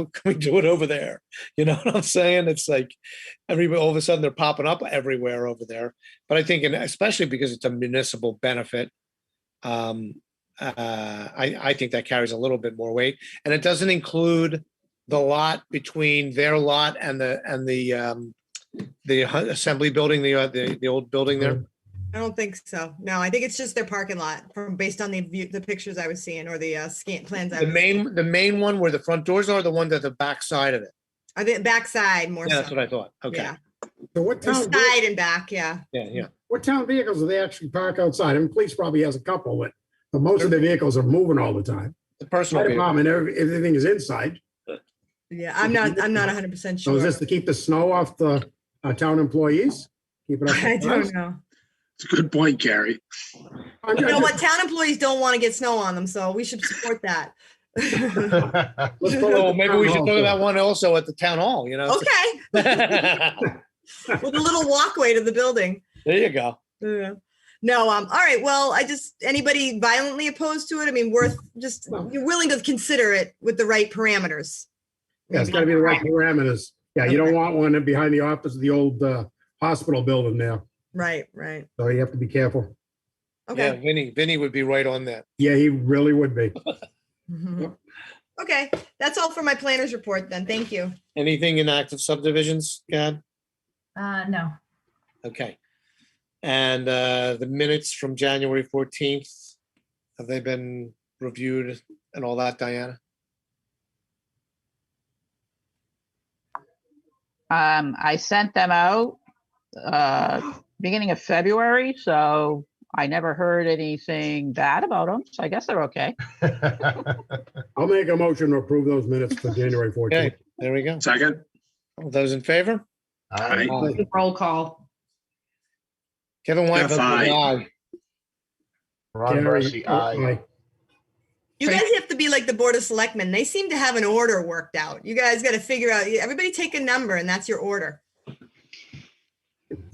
can we do it over there? You know what I'm saying? It's like everybody, all of a sudden they're popping up everywhere over there. But I think, and especially because it's a municipal benefit, um, uh, I, I think that carries a little bit more weight. And it doesn't include the lot between their lot and the, and the, um, the hu- assembly building, the, uh, the, the old building there. I don't think so. No, I think it's just their parking lot from, based on the view, the pictures I was seeing or the uh, scan plans. I The was- main, the main one where the front doors are, the one that the back side of it. I think backside more Yeah, so. that's what Oh, I thought. Okay. Yeah. So what Or town, Side and back, yeah. Yeah, yeah. what town vehicles do they actually park outside? I mean, police probably has a couple, but but most of the vehicles are moving all the time. The personal. Fire vehicle. department, every- everything is inside. Yeah, I'm not, I'm not hundred percent So sure. is this to keep the snow off the uh, town employees? Keep it up. I don't know. It's a good point, Gary. I'm- You know I'm what? just- Town employees don't want to get snow on them, so we should support that. Okay, let's go with Oh, the maybe town we should hall look at thing. that one also at the town hall, you know? There with a little walkway to the building. you go. Yeah. No, um, all right, well, I just, anybody violently opposed to it? I mean, worth, just, you're willing to consider it with the right parameters. Yeah, it's gotta be the right parameters. Yeah, you don't Okay. want one behind the office of the old uh, hospital building there. Right, right. So you have to be careful. Yeah, Okay. Vinny, Vinny would be right on that. Yeah, he really would be. Mhm. Yep. Okay, that's all for my planner's report then. Thank you. Anything in active subdivisions, Gad? Uh, no, Okay. And uh, the minutes from January 14th, have they been reviewed and all that, Diana? Um, I sent them out, uh, beginning of February, so I never heard anything bad about them, so I guess they're okay. I'll make a motion to approve those minutes for January 14th. Okay, there we go. Second, All Those in favor? Aye. Aye. roll call. Kevin Wine votes Aye. aye. Ron Gary, Barsi, oh aye. aye. You guys have to be like the Board of Selectmen. They seem to have an order worked out. You guys got to figure out, everybody take a number and that's your order.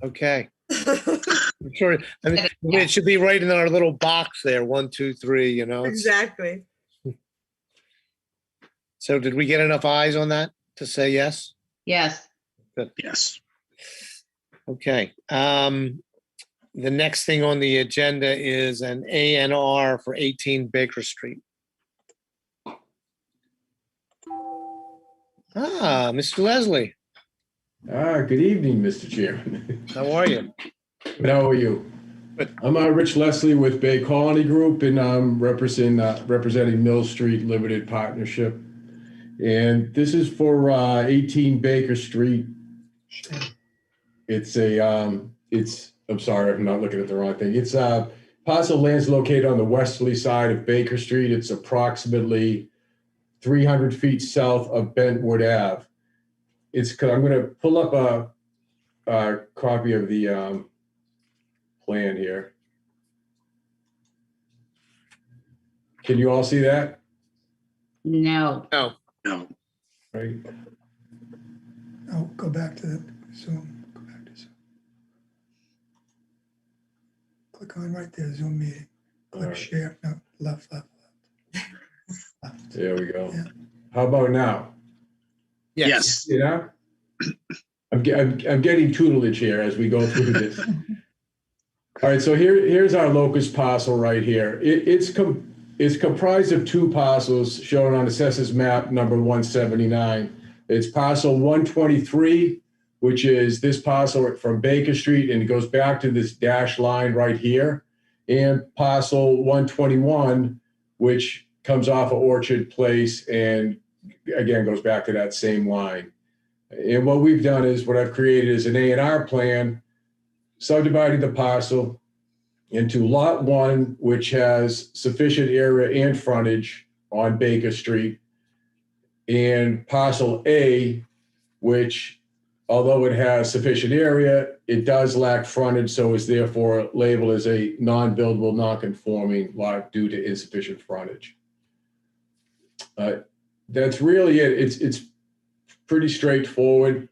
Okay. I'm sure, I mean, it should be right in our little box there, one, two, three, you know? it's- Exactly. So did we get enough eyes on that to say yes? Yes, yes. Okay, um, the next thing on the agenda is an A and R for eighteen Baker Street. Ah, Mr. Leslie, Ah, good evening, Mr. Chairman. how are you? But How are you? Good. I'm uh, Rich Leslie with Bay Colony Group, and I'm representing, uh, representing Mill Street Limited Partnership. And this is for uh, 18 Baker Street. It's a, um, it's, I'm sorry, I'm not looking at the wrong thing. It's uh, parcel land's located on the westerly side of Baker Street. It's approximately 300 feet south of Bentwood Ave. It's, I'm going to pull up a uh, copy of the um, plan here. Can you all see that? no, Oh, No, Right? Oh, go back to the Zoom, go back to Zoom. Click on right there, Zoom meeting, All click right, share, no, left, left, left. Left. there we go. Yeah. How about now? yes, You know? I'm, ge- I'm, I'm getting tutelage here as we go through this. All right, so here, here's our locust parcel right here. It, it's com, it's comprised of two parcels shown on assessors map number one seventy-nine. It's parcel one twenty-three, which is this parcel from Baker Street, and it goes back to this dashed line right here. And parcel one twenty-one, which comes off of Orchard Place and again goes back to that same line. And what we've done is, what I've created is an A and R plan subdividing the parcel into lot one, which has sufficient area and frontage on Baker Street, and parcel A, which, although it has sufficient area, it does lack frontage, so is therefore labeled as a non-buildable, non-conforming lot due to insufficient frontage. Uh, That's really it. It's, it's pretty straightforward.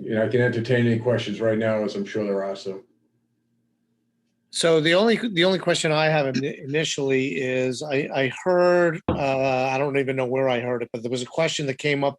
You know, I can entertain any questions right now, as I'm sure there are some. So the only, the only question I have ini- initially is, I, I heard, uh, I don't even know where I heard it, but there was a question that came up